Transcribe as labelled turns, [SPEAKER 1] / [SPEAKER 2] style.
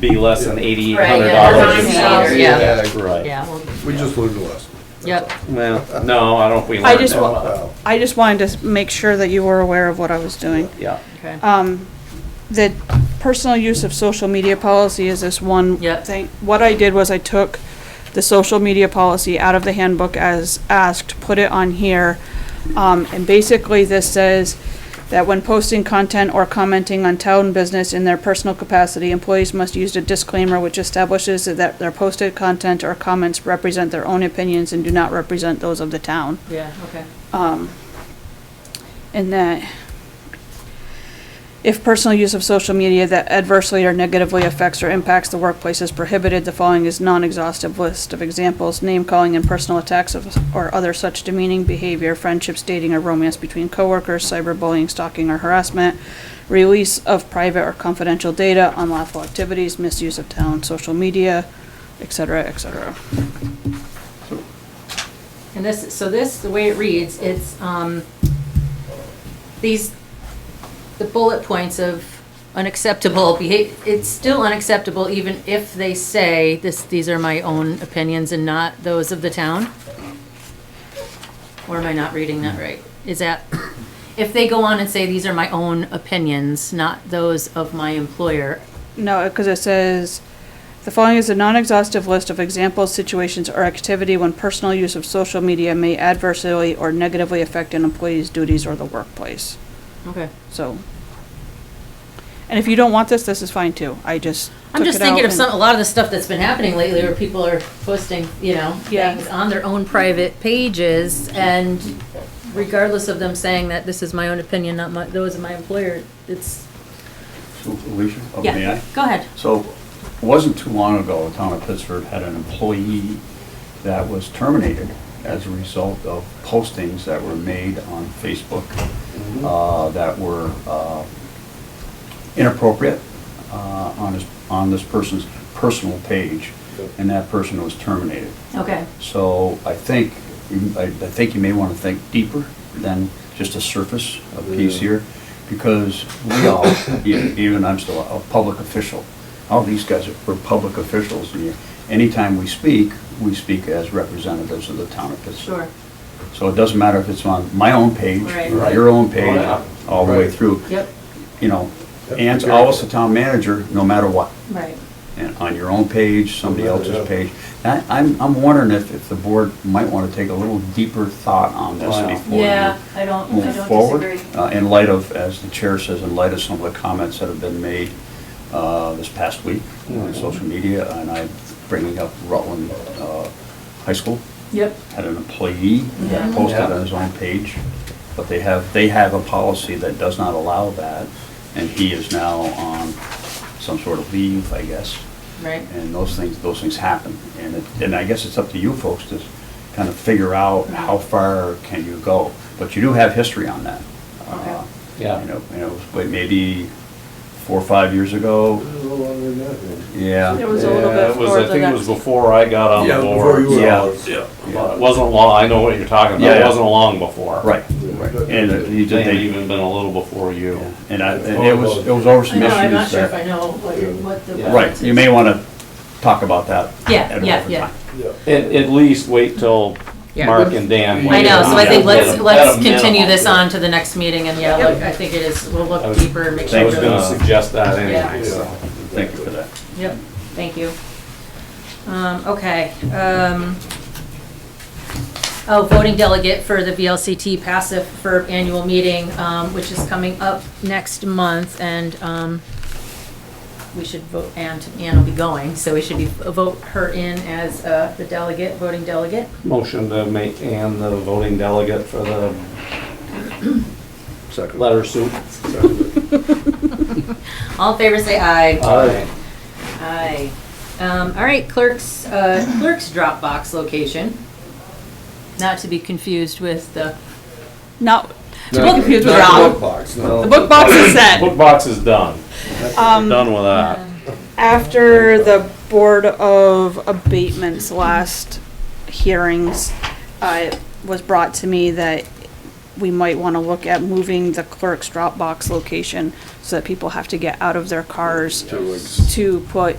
[SPEAKER 1] be less than eighty-eight hundred
[SPEAKER 2] Right,
[SPEAKER 1] dollars.
[SPEAKER 2] yeah,
[SPEAKER 3] $9,000, yeah.
[SPEAKER 1] Right,
[SPEAKER 3] Yeah, well,
[SPEAKER 4] We just learned a lesson.
[SPEAKER 3] yep.
[SPEAKER 1] well, no, I don't, know if we
[SPEAKER 5] I
[SPEAKER 1] learned
[SPEAKER 5] just
[SPEAKER 1] that
[SPEAKER 5] wa-
[SPEAKER 1] well.
[SPEAKER 4] Wow.
[SPEAKER 5] I just wanted to make sure that you were aware of what I was doing.
[SPEAKER 1] Yeah,
[SPEAKER 3] Okay.
[SPEAKER 5] Um, the personal use of social media policy is this one
[SPEAKER 3] Yep.
[SPEAKER 5] thing. What I did was I took the social media policy out of the handbook as asked, put it on here. Um, and basically this says that when posting content or commenting on town business in their personal capacity, employees must use a disclaimer which establishes that their posted content or comments represent their own opinions and do not represent those of the town.
[SPEAKER 3] Yeah, okay.
[SPEAKER 5] um, and that if personal use of social media that adversely or negatively affects or impacts the workplace is prohibited, the following is non-exhaustive list of examples, name calling and personal attacks of, or other such demeaning behavior, friendships, dating, or romance between coworkers, cyberbullying, stalking, or harassment, release of private or confidential data, unlawful activities, misuse of town social media, et cetera, et cetera.
[SPEAKER 3] And this, so this, the way it reads, it's, um, these, the bullet points of unacceptable behavior, it's still unacceptable even if they say this, these are my own opinions and not those of the town? Or am I not reading that right? Is that, if they go on and say, these are my own opinions, not those of my employer,
[SPEAKER 5] No, because it says, the following is a non-exhaustive list of examples, situations, or activity when personal use of social media may adversely or negatively affect an employee's duties or the workplace,
[SPEAKER 3] okay.
[SPEAKER 5] so. And if you don't want this, this is fine too, I just
[SPEAKER 3] I'm
[SPEAKER 5] took
[SPEAKER 3] just
[SPEAKER 5] it out
[SPEAKER 3] thinking of
[SPEAKER 5] and-
[SPEAKER 3] some, a lot of the stuff that's been happening lately where people are posting, you know,
[SPEAKER 5] Yeah.
[SPEAKER 3] things on their own private pages and regardless of them saying that this is my own opinion, not my, those of my employer, it's,
[SPEAKER 6] So, Alicia, oh, may
[SPEAKER 3] yeah,
[SPEAKER 6] I?
[SPEAKER 3] go ahead.
[SPEAKER 6] So, it wasn't too long ago, the town of Pittsford had an employee that was terminated as a result of postings that were made on Facebook uh, that were uh, inappropriate uh, on his, on this person's personal page, and that person was terminated.
[SPEAKER 3] Okay,
[SPEAKER 6] So I think, I I think you may want to think deeper than just a surface a piece here, because we all, e- even I'm still a public official, all these guys are we're public officials, and you- anytime we speak, we speak as representatives of the town of
[SPEAKER 3] sure.
[SPEAKER 6] Pittsburgh. So it doesn't matter if it's on my own page, or
[SPEAKER 3] Right.
[SPEAKER 6] your own
[SPEAKER 1] Oh,
[SPEAKER 6] page,
[SPEAKER 1] yeah.
[SPEAKER 6] all the way
[SPEAKER 4] Right.
[SPEAKER 6] through.
[SPEAKER 3] Yep,
[SPEAKER 6] You know,
[SPEAKER 4] Yep,
[SPEAKER 6] Ann's
[SPEAKER 4] be
[SPEAKER 6] always the
[SPEAKER 4] careful.
[SPEAKER 6] town manager, no matter what
[SPEAKER 3] right.
[SPEAKER 6] and on your own page, somebody
[SPEAKER 4] Yeah.
[SPEAKER 6] else's page. I- I'm, I'm wondering if, if the board might want to take a little deeper thought on this
[SPEAKER 1] Wow.
[SPEAKER 6] before
[SPEAKER 3] Yeah,
[SPEAKER 6] we
[SPEAKER 3] Uh, I don't, I
[SPEAKER 6] move
[SPEAKER 3] don't
[SPEAKER 6] forward.
[SPEAKER 3] disagree.
[SPEAKER 6] Uh, In light of, as the chair says, in light of some of the comments that have been made uh, this past week on
[SPEAKER 1] Mhm.
[SPEAKER 6] social media, and I'm bringing up Rutland uh, High School,
[SPEAKER 3] Yep,
[SPEAKER 6] had an employee that
[SPEAKER 3] Yeah.
[SPEAKER 6] posted
[SPEAKER 1] Yeah.
[SPEAKER 6] on his own page, but they have, they have a policy that does not allow that, and he is now on some sort of leave, I guess
[SPEAKER 3] right.
[SPEAKER 6] and those things, those things happen. And it, and I guess it's up to you folks to kind of figure out how far can you go. But you do have history on that. Uh,
[SPEAKER 1] Yeah.
[SPEAKER 6] You know, you know, but maybe four or five years ago,
[SPEAKER 4] This is no longer than that, man.
[SPEAKER 5] It
[SPEAKER 6] yeah.
[SPEAKER 5] was a little
[SPEAKER 1] Yeah,
[SPEAKER 5] bit
[SPEAKER 1] it was-
[SPEAKER 5] before
[SPEAKER 1] I think
[SPEAKER 5] the
[SPEAKER 1] it was
[SPEAKER 5] next-
[SPEAKER 1] before I got on
[SPEAKER 4] Yeah,
[SPEAKER 1] the
[SPEAKER 4] before
[SPEAKER 1] board.
[SPEAKER 4] you were
[SPEAKER 6] Yeah.
[SPEAKER 4] on.
[SPEAKER 1] Yeah, but it wasn't long, I know what you're talking about, it
[SPEAKER 6] Yeah.
[SPEAKER 1] wasn't long before.
[SPEAKER 6] Right,
[SPEAKER 4] Right.
[SPEAKER 6] and uh, you
[SPEAKER 1] It may
[SPEAKER 6] did,
[SPEAKER 1] have
[SPEAKER 6] they,
[SPEAKER 1] even been a little before you.
[SPEAKER 6] and I, and it was, it was over
[SPEAKER 3] I
[SPEAKER 6] some
[SPEAKER 3] know,
[SPEAKER 6] issues
[SPEAKER 3] I'm not sure if I
[SPEAKER 6] that-
[SPEAKER 3] know what, what the.
[SPEAKER 1] Yeah.
[SPEAKER 6] Right, you may want to talk about that.
[SPEAKER 3] Yeah,
[SPEAKER 6] at a
[SPEAKER 3] yeah,
[SPEAKER 6] different
[SPEAKER 3] yeah.
[SPEAKER 6] time.
[SPEAKER 4] Yeah.
[SPEAKER 1] At, at least wait till
[SPEAKER 3] Yeah.
[SPEAKER 1] Mark and Dan.
[SPEAKER 3] I know, so I think
[SPEAKER 1] weigh in on it. At a-
[SPEAKER 3] let's,
[SPEAKER 1] at
[SPEAKER 3] let's
[SPEAKER 1] a
[SPEAKER 3] continue
[SPEAKER 1] minimum.
[SPEAKER 3] this on to the next meeting and yeah, look, I think it is, we'll
[SPEAKER 1] I
[SPEAKER 3] look
[SPEAKER 1] was-
[SPEAKER 3] deeper and make sure.
[SPEAKER 1] I was
[SPEAKER 3] we're-
[SPEAKER 1] gonna suggest that
[SPEAKER 3] Yeah.
[SPEAKER 1] anyway, so.
[SPEAKER 6] Thank you for that.
[SPEAKER 3] Yep, thank you. Um, okay, um, oh, voting delegate for the VLCT passive for annual meeting, um, which is coming up next month, and, um, we should vote, and Ann will be going, so we should be, vote her in as, uh, the delegate, voting delegate.
[SPEAKER 1] Motion to make Ann the voting delegate for the
[SPEAKER 4] Second.
[SPEAKER 1] letter suit.
[SPEAKER 4] Second.
[SPEAKER 3] All in favor, say aye.
[SPEAKER 1] Aye.
[SPEAKER 3] Aye. Um, all right, clerk's, uh, clerk's Dropbox location, not to be confused with the
[SPEAKER 5] Not,
[SPEAKER 4] Not-
[SPEAKER 5] confused with
[SPEAKER 4] not
[SPEAKER 5] Rob.
[SPEAKER 4] book box, no.
[SPEAKER 5] the book box is set.
[SPEAKER 1] Book box is done.
[SPEAKER 5] Um,
[SPEAKER 1] We're Done with that.
[SPEAKER 5] After the Board of Abatements last hearings, uh, it was brought to me that we might want to look at moving the clerk's Dropbox location so that people have to get out of their cars
[SPEAKER 4] Two weeks.
[SPEAKER 5] to put